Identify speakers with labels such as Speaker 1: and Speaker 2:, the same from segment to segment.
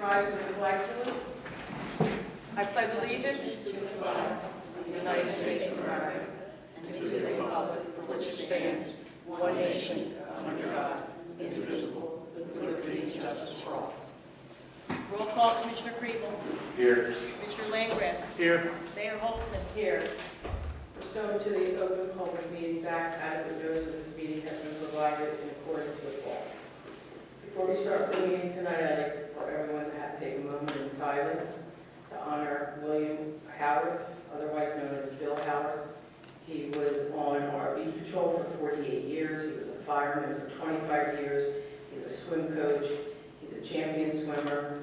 Speaker 1: rise for the flag salute. I pledge allegiance to the flag of the United States of America and to the republic for which it stands, one nation, under God, indivisible, with liberty and justice for all.
Speaker 2: Roll call, Commissioner Crevel.
Speaker 3: Here.
Speaker 2: Commissioner Langgraf.
Speaker 3: Here.
Speaker 2: Mayor Holtzman.
Speaker 1: Here, pursuant to the Open Public Meetings Act, adequate notice of this meeting has been provided in accordance with law. Before we start the meeting tonight, I'd like for everyone to have, take a moment in silence to honor William Howard, otherwise known as Bill Howard. He was on RV patrol for 48 years, he was a fireman for 25 years, he's a swim coach, he's a champion swimmer,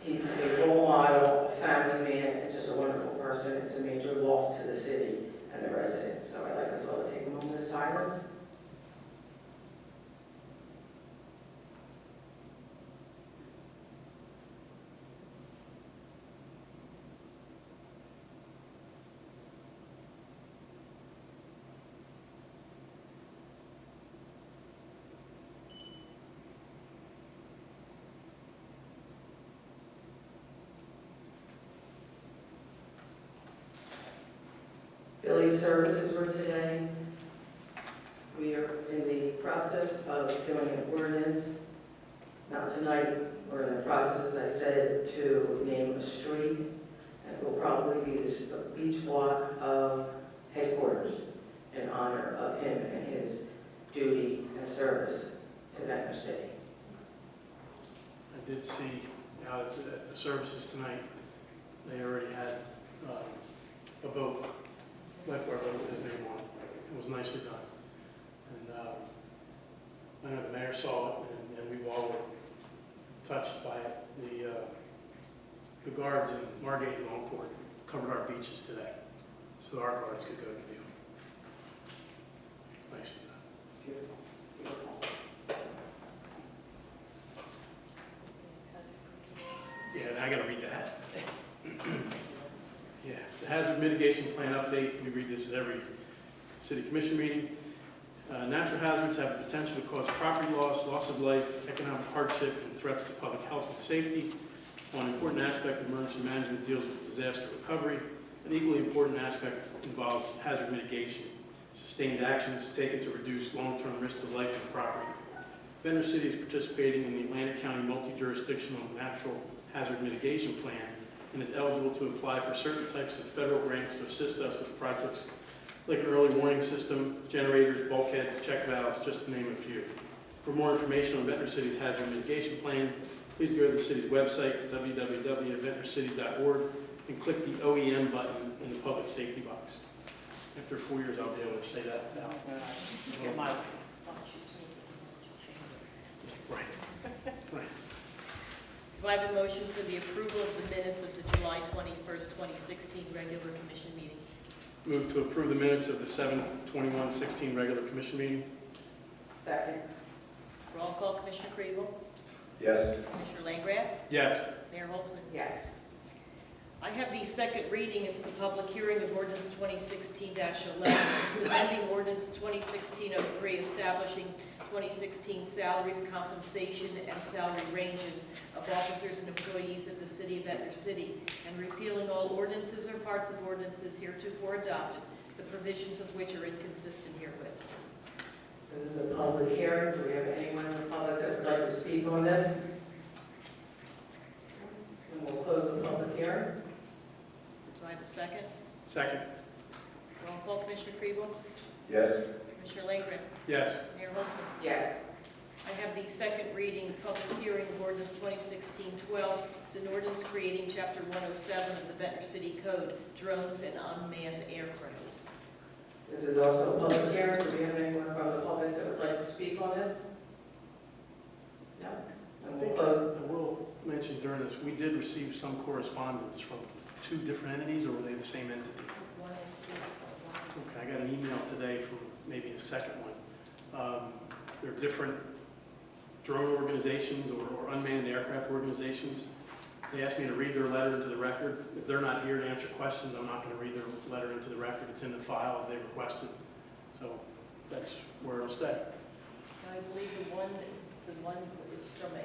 Speaker 1: He's a role model, a family man, and just a wonderful person. It's a major loss to the city and the residents. So I'd like us all to take a moment of silence. Billy's services were today. We are in the process of doing an ordinance. Not tonight, we're in the process, as I said, to name a street. And it will probably be this beach block of headquarters in honor of him and his duty and service to Venter City.
Speaker 4: I did see out at the- at the services tonight, they already had um, a boat, lifeguard boat with his name on it. It was nicely done. And um, I know the mayor saw it and- and we all were touched by it. The, uh, the guards in Margate and Longport covered our beaches today, so our guards could go to view. Nicely done.
Speaker 1: Beautiful, beautiful.
Speaker 4: Yeah, and I gotta read that. Yeah, the hazard mitigation plan update, we read this at every city commission meeting. Uh, Natural hazards have the potential to cause property loss, loss of life, economic hardship, and threats to public health and safety. One important aspect of emergency management deals with disaster recovery. An equally important aspect involves hazard mitigation, sustained actions taken to reduce long-term risk to life and property. Venter City is participating in the Atlantic County Multi-Jurisdictional Natural Hazard Mitigation Plan and is eligible to apply for certain types of federal grants to assist us with projects like an early warning system, generators, bulkheads, check valves, just to name a few. For more information on Ventnor City's hazard mitigation plan, please go to the city's website, www.ventnorcity.org, and click the OEM button in the public safety box. After four years, I'll be able to say that now.
Speaker 2: Get my-
Speaker 4: Right, right.
Speaker 2: Do I have a motion for the approval of the minutes of the July 21st, 2016 regular commission meeting?
Speaker 4: Move to approve the minutes of the 7/21/16 regular commission meeting?
Speaker 1: Second,
Speaker 2: Roll call, Commissioner Crevel.
Speaker 3: Yes.
Speaker 2: Commissioner Langgraf.
Speaker 4: Yes.
Speaker 2: Mayor Holtzman.
Speaker 1: yes.
Speaker 2: I have the second reading, it's the public hearing of ordinance 2016-11. It's amending ordinance 2016-03, establishing 2016 salaries, compensation, and salary ranges of officers and employees of the city of Venter City, and repealing all ordinances or parts of ordinances heretofore adopted, the provisions of which are inconsistent herewith.
Speaker 1: This is a public hearing. Do we have anyone in the public that would like to speak on this? And we'll close the public hearing.
Speaker 2: Do I have a second?
Speaker 4: Second?
Speaker 2: Roll call, Commissioner Crevel.
Speaker 3: Yes.
Speaker 2: Commissioner Langren.
Speaker 4: Yes.
Speaker 2: Mayor Holtzman.
Speaker 1: Yes.
Speaker 2: I have the second reading, public hearing of ordinance 2016-12. It's an ordinance creating Chapter 107 of the Ventnor City Code, drones and unmanned aircraft.
Speaker 1: This is also a public hearing. Do we have anyone from the public that would like to speak on this? No? And we'll close.
Speaker 4: I will mention during this, we did receive some correspondence from two different entities, or were they the same entity?
Speaker 2: One and two, so it's on.
Speaker 4: Okay, I got an email today from maybe a second one. Um, They're different drone organizations or or unmanned aircraft organizations. They asked me to read their letter into the record. If they're not here to answer questions, I'm not going to read their letter into the record. It's in the file as they requested. So that's where it'll stay.
Speaker 2: I believe the one, the one is from a